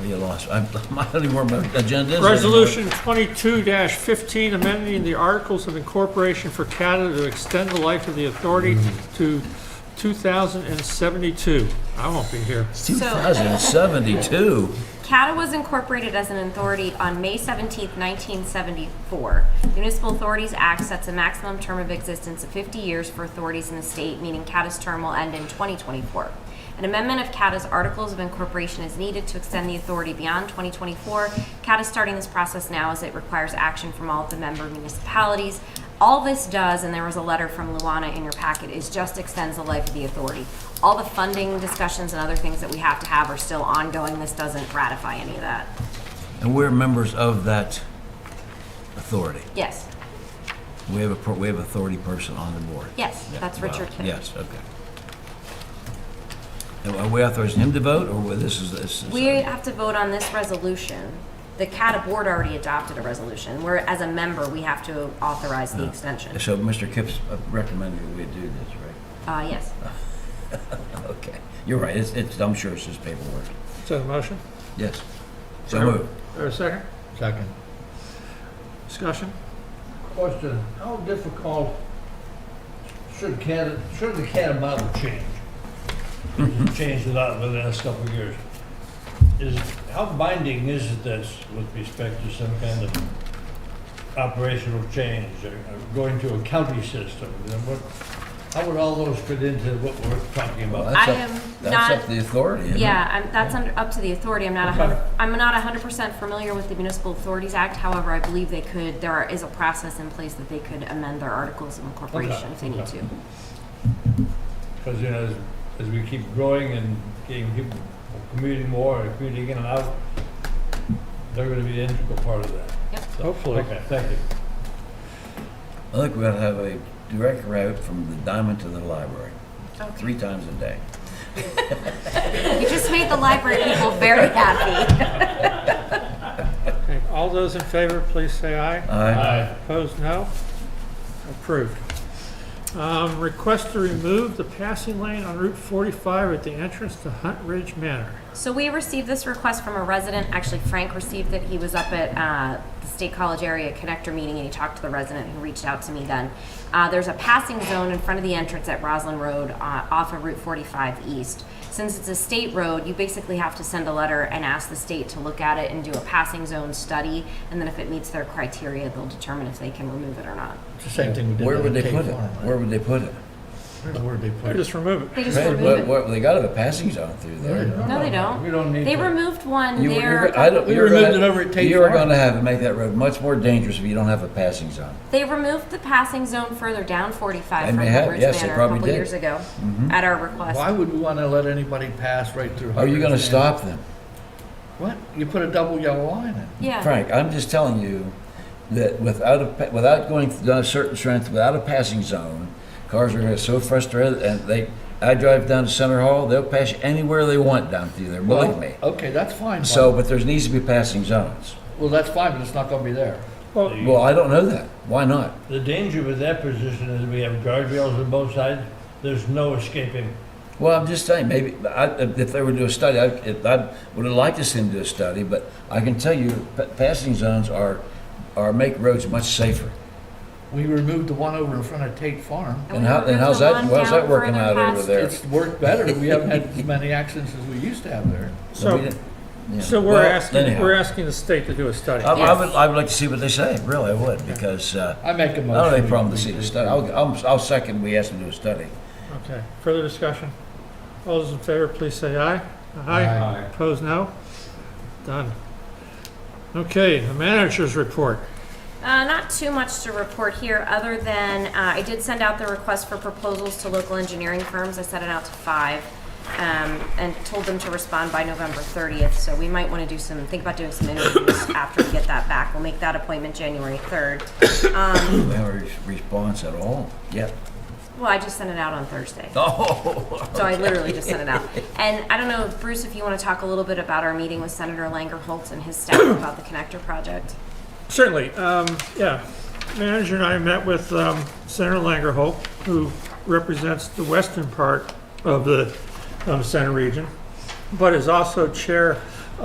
Oh, You lost, I, I don't even remember what my agenda is anymore. Resolution twenty-two fifteen, amending the Articles of Incorporation for Canada to extend the life of the authority Mm-hmm. to two thousand and seventy-two. I won't be here. 2072. CATA was incorporated as an authority on May 17, 1974. The Municipal Authorities Act sets a maximum term of existence of 50 years for authorities in the state, meaning CATA's term will end in 2024. An amendment of CATA's Articles of Incorporation is needed to extend the authority beyond 2024. CATA is starting this process now as it requires action from all of the member municipalities. All this does, and there was a letter from Luana in your packet, is just extends the life of the authority. All the funding discussions and other things that we have to have are still ongoing. This doesn't ratify any of that. And we're members of that authority. Yes, We have a, per- we have authority person on the board. yes, Yeah, that's wow, Richard Kidd. Yes, okay. And Are we authorizing him to vote, or we- this is, this is? uh, We have to vote on this resolution. The CATA board already adopted a resolution, where as a member, we have to authorize the extension. So Mr. Kipps uh, recommended we do this, right? Uh, yes. Okay, you're right, it's, it's, I'm sure it's just paperwork. Is that a motion? Yes. So moved. Or a second? Second. Discussion? Question, how difficult should CAD, should the CAD model change? Change a lot within the last couple of years. Is, how binding is this with respect to some kind of operational change or or going to a county system? Then what, how would all those fit into what we're talking Well, about? that's I up- am That's up not- to the authority, isn't it? Yeah, I'm, that's under, up to the authority. I'm not a hundred, Okay. I'm not hundred percent familiar with the Municipal Authorities Act. However, I believe they could, there are- is a process in place that they could amend their articles of incorporation if they need okay. to. Because, you know, as, as we keep growing and getting people commuting more and commuting in and out, they're gonna be an integral part of that. Yep. So, Hopefully. Okay, thank you. I think we're gonna have a direct route from the diamond to the library, three times a day. You just made the library people very happy. Okay, all those in favor, please say aye. Aye. Aye. Opposed, no? Approved. Um, request to remove the passing lane on Route forty-five at the entrance to Hunt Ridge Manor. So we received this request from a resident, actually Frank received it, he was up at uh, the State College Area Connector meeting and he talked to the resident who reached out to me then. Uh, There's a passing zone in front of the entrance at Roslyn Road uh, off of Route 45 East. Since it's a state road, you basically have to send a letter and ask the state to look at it and do a passing zone study, and then if it meets their criteria, they'll determine if they can remove it or not. It's the same thing we did. Where on would they Cave put it? Farm, right? Where would they put it? Where would they put it? Just remove it. They just Right, remove what, it. what, they gotta have a passing zone through there. No, they don't. We don't need They that. removed one You- there. you're- a I couple don't- We you're gonna- removed it over at Tate You're Farm. gonna have, make that road much more dangerous if you don't have a passing zone. They removed the passing zone further down 45 And from they have- Hubbard's yes, they Manor a probably couple did. Mm-hmm. years ago at our request. Why would we want to let anybody pass right through? Are you Harvard's gonna land? stop them? What? You put a double yellow line in. Yeah. Frank, I'm just telling you that without a, pa- without going down a certain strength, without a passing zone, cars are gonna be so frustrated and they, I drive down to Center Hall, they'll pass you anywhere they want down through there, believe me. Okay, that's fine. So, Bob. but there needs to be passing zones. Well, that's fine, but it's not going to be there. Well, The- Well, I don't know that. Why not? The danger with that position is we have guardrails on both sides, there's no escaping. Well, I'm just saying, maybe, I, if they were to do a study, I, if, I would have liked to see them do a study, but I can tell you, pa- passing zones are, are, make roads much safer. We removed the one over in front of Tate Farm. And how- we and how's removed the that- one how's down that working further out over past- there? It's worked better. We haven't had as many accidents as we used to have there. And we so, didn't- yeah. so we're Well, asking, anyhow. we're asking the state to do a study. I, I Yes. would, I would like to see what they say, really, I would, because, uh, I make a motion. I don't have any we- problem to we- see the study. I'll, I'll, I'll second we ask them to do a study. Okay, further discussion? All those in favor, please say aye. Aye. Opposed, no? Done. Okay, the manager's report. Uh, not too much to report here, other than uh, I did send out the request for proposals to local engineering firms. I sent it out to five um, and told them to respond by November 30th. So we might want to do some, think about doing some interviews after we get that back. We'll make that appointment January 3rd. We haven't re- response at all yet. Well, I just sent it out on Thursday. Oh, So I literally just sent it out. And I don't know, Bruce, if you want to talk a little bit about our meeting with Senator Langer Holtz and his staff about the connector project? Certainly, um, yeah. Manager and I met with, um, Senator Langerholt, who represents the western part of the, um, center region, but is also chair